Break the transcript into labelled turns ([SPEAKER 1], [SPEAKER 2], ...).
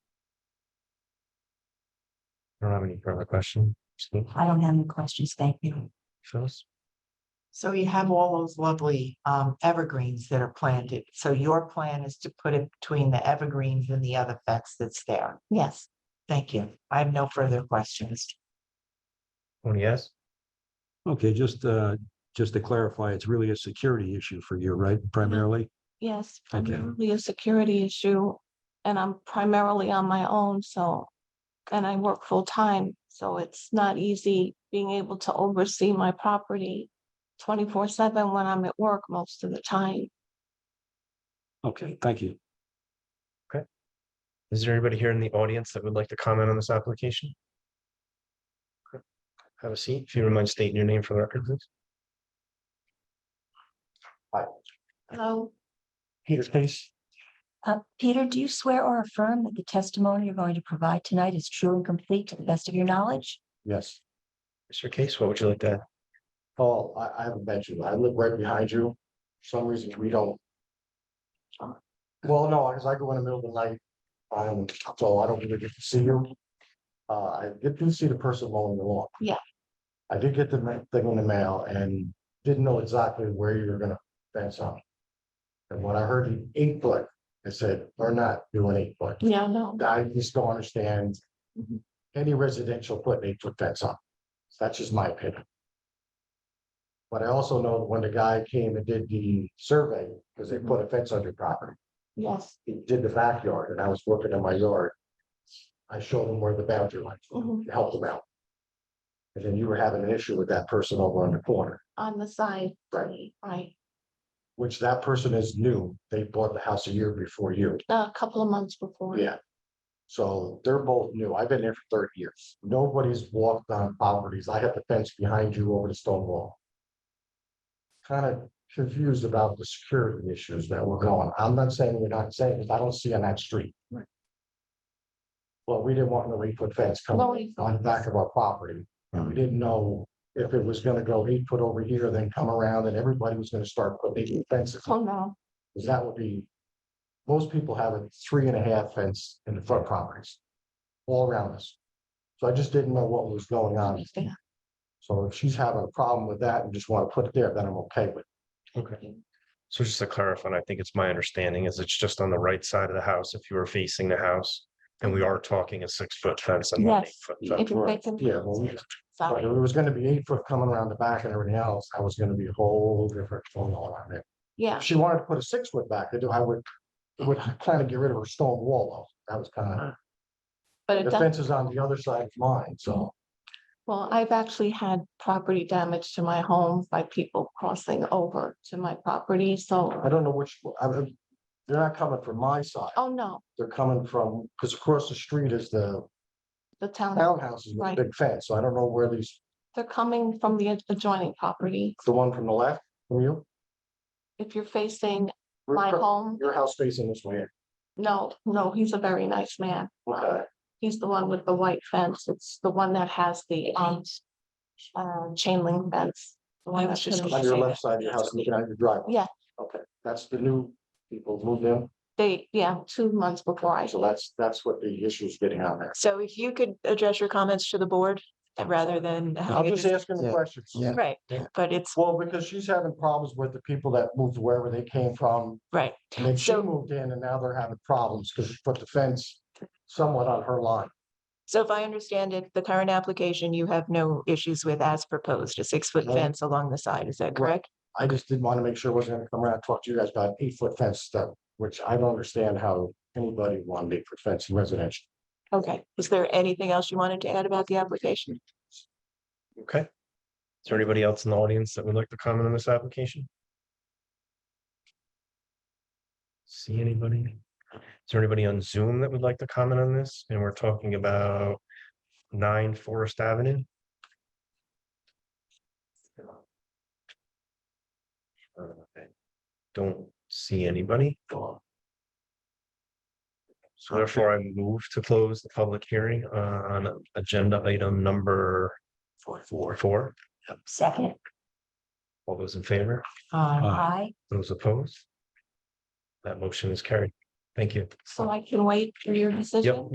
[SPEAKER 1] I don't have any further questions.
[SPEAKER 2] I don't have any questions. Thank you.
[SPEAKER 1] Phyllis?
[SPEAKER 3] So you have all those lovely um evergreens that are planted. So your plan is to put it between the evergreens and the other fence that's there.
[SPEAKER 2] Yes,
[SPEAKER 3] Thank you. I have no further questions.
[SPEAKER 1] One Oh, yes?
[SPEAKER 4] Okay, just, uh, just to clarify, it's really a security issue for you,
[SPEAKER 5] Mm-hmm.
[SPEAKER 4] right, primarily?
[SPEAKER 2] yes,
[SPEAKER 4] Okay.
[SPEAKER 2] primarily a security issue. And I'm primarily on my own, so, and I work full-time, so it's not easy being able to oversee my property twenty-four seven when I'm at work most of the time.
[SPEAKER 4] Okay, thank you.
[SPEAKER 1] Is there anybody here in the audience that would like to comment on this application? Okay. Have a seat. If you don't mind stating your name for the record, please.
[SPEAKER 2] Hello,
[SPEAKER 1] Peter Pace.
[SPEAKER 5] Uh, Peter, do you swear or affirm that the testimony you're going to provide tonight is true and complete to the best of your knowledge?
[SPEAKER 6] Yes,
[SPEAKER 1] Mr. Case, what would you like to add?
[SPEAKER 6] Paul, I, I haven't met you. I live right behind you. For some reason, we don't. Well, no, because I go in the middle of the night. Um, so I don't really get to see you. Uh, I did to see the person mowing the lawn.
[SPEAKER 2] Yeah.
[SPEAKER 6] I did get the ma- thing in the mail and didn't know exactly where you were gonna fence up. And when I heard the eight foot, I said, we're not doing eight foot.
[SPEAKER 2] yeah, no,
[SPEAKER 6] I just don't understand. Any residential put an eight foot fence on. That's just my opinion. But I also know that when the guy came and did the survey, because they put a fence on your property,
[SPEAKER 2] yes.
[SPEAKER 6] he did the backyard and I was working in my yard. I showed him where the boundary line,
[SPEAKER 2] mhm,
[SPEAKER 6] to help him out. And then you were having an issue with that person over on the corner,
[SPEAKER 2] On the side,
[SPEAKER 6] Right.
[SPEAKER 2] right,
[SPEAKER 6] which that person is new. They bought the house a year before you.
[SPEAKER 2] a couple of months before.
[SPEAKER 6] Yeah. So they're both new. I've been there for thirty years. Nobody's walked on properties. I have the fence behind you over the stone wall. Kind of confused about the security issues that were going. I'm not saying you're not saying, because I don't see on that street.
[SPEAKER 2] Right.
[SPEAKER 6] Well, we didn't want no eight foot fence
[SPEAKER 2] No
[SPEAKER 6] coming
[SPEAKER 2] eight
[SPEAKER 6] on the back of our property. And we didn't know if it was gonna go eight foot over here, then come around and everybody was gonna start putting eight foot fences.
[SPEAKER 2] Oh, no,
[SPEAKER 6] Because that would be, most people have a three and a half fence in the front properties. All around us. So I just didn't know what was going on.
[SPEAKER 2] understand.
[SPEAKER 6] So if she's having a problem with that and just want to put it there, then I'm okay with it.
[SPEAKER 1] Okay. So just to clarify, and I think it's my understanding is it's just on the right side of the house if you were facing the house. And we are talking a six foot fence and one eight
[SPEAKER 2] Yes.
[SPEAKER 1] foot
[SPEAKER 2] If
[SPEAKER 1] fence.
[SPEAKER 2] you make them.
[SPEAKER 6] Yeah, well, we- but
[SPEAKER 2] Sorry.
[SPEAKER 6] if it was gonna be eight foot coming around the back and everything else, I was gonna be a whole different going on around there.
[SPEAKER 2] Yeah,
[SPEAKER 6] If she wanted to put a six foot back, I do- I would, I would kind of get rid of her stone wall though. That was kind of,
[SPEAKER 2] but Uh, it
[SPEAKER 6] the
[SPEAKER 2] does,
[SPEAKER 6] fence is on the other side of mine, so.
[SPEAKER 2] well, I've actually had property damage to my home by people crossing over to my property,
[SPEAKER 6] I
[SPEAKER 2] so.
[SPEAKER 6] don't know which, I, I- they're not coming from my side.
[SPEAKER 2] Oh, no,
[SPEAKER 6] They're coming from, because across the street is the
[SPEAKER 2] the town,
[SPEAKER 6] townhouses with
[SPEAKER 2] Right.
[SPEAKER 6] a big fence, so I don't know where these,
[SPEAKER 2] they're coming from the adjoining property.
[SPEAKER 6] the one from the left from you.
[SPEAKER 2] If you're facing
[SPEAKER 6] We're
[SPEAKER 2] my
[SPEAKER 6] pro-
[SPEAKER 2] home,
[SPEAKER 6] Your house facing this way.
[SPEAKER 2] no, no, he's a very nice man.
[SPEAKER 6] Okay.
[SPEAKER 2] He's the one with the white fence. It's the one that has the, um, uh, chain link fence. The one
[SPEAKER 5] I
[SPEAKER 2] that
[SPEAKER 5] was just
[SPEAKER 2] should-
[SPEAKER 6] On your left side of your house, looking out your driveway.
[SPEAKER 2] Yeah.
[SPEAKER 6] Okay, that's the new people moved in,
[SPEAKER 2] They, yeah, two months before I.
[SPEAKER 6] so that's, that's what the issue is getting on there.
[SPEAKER 7] So if you could address your comments to the board rather than.
[SPEAKER 6] I'm
[SPEAKER 7] having it
[SPEAKER 6] just
[SPEAKER 7] just-
[SPEAKER 6] asking the questions.
[SPEAKER 1] Yeah.
[SPEAKER 7] Right,
[SPEAKER 1] Yeah.
[SPEAKER 7] but it's,
[SPEAKER 6] Well, because she's having problems with the people that moved wherever they came from.
[SPEAKER 7] right.
[SPEAKER 6] And then she
[SPEAKER 7] So-
[SPEAKER 6] moved in and now they're having problems because she put the fence somewhat on her line.
[SPEAKER 7] So if I understand it, the current application, you have no issues with as proposed, a six-foot
[SPEAKER 6] No.
[SPEAKER 7] fence along the side, is that correct?
[SPEAKER 6] I just didn't want to make sure it wasn't gonna come around, and talk to you guys about eight foot fence stuff, which I don't understand how anybody wanted eight foot fence in residential.
[SPEAKER 7] Okay, is there anything else you wanted to add about the application?
[SPEAKER 1] Okay. Is there anybody else in the audience that would like to comment on this application? See anybody? Is there anybody on Zoom that would like to comment on this? And we're talking about nine Forest Avenue. Okay. Don't see anybody. So therefore I move to close the public hearing uh, on agenda item number four. Four.
[SPEAKER 5] Second,
[SPEAKER 1] All those in favor?
[SPEAKER 3] Uh,
[SPEAKER 4] Uh,
[SPEAKER 5] I.
[SPEAKER 1] Those opposed? That motion is carried. Thank you.
[SPEAKER 2] So I can wait for your decision?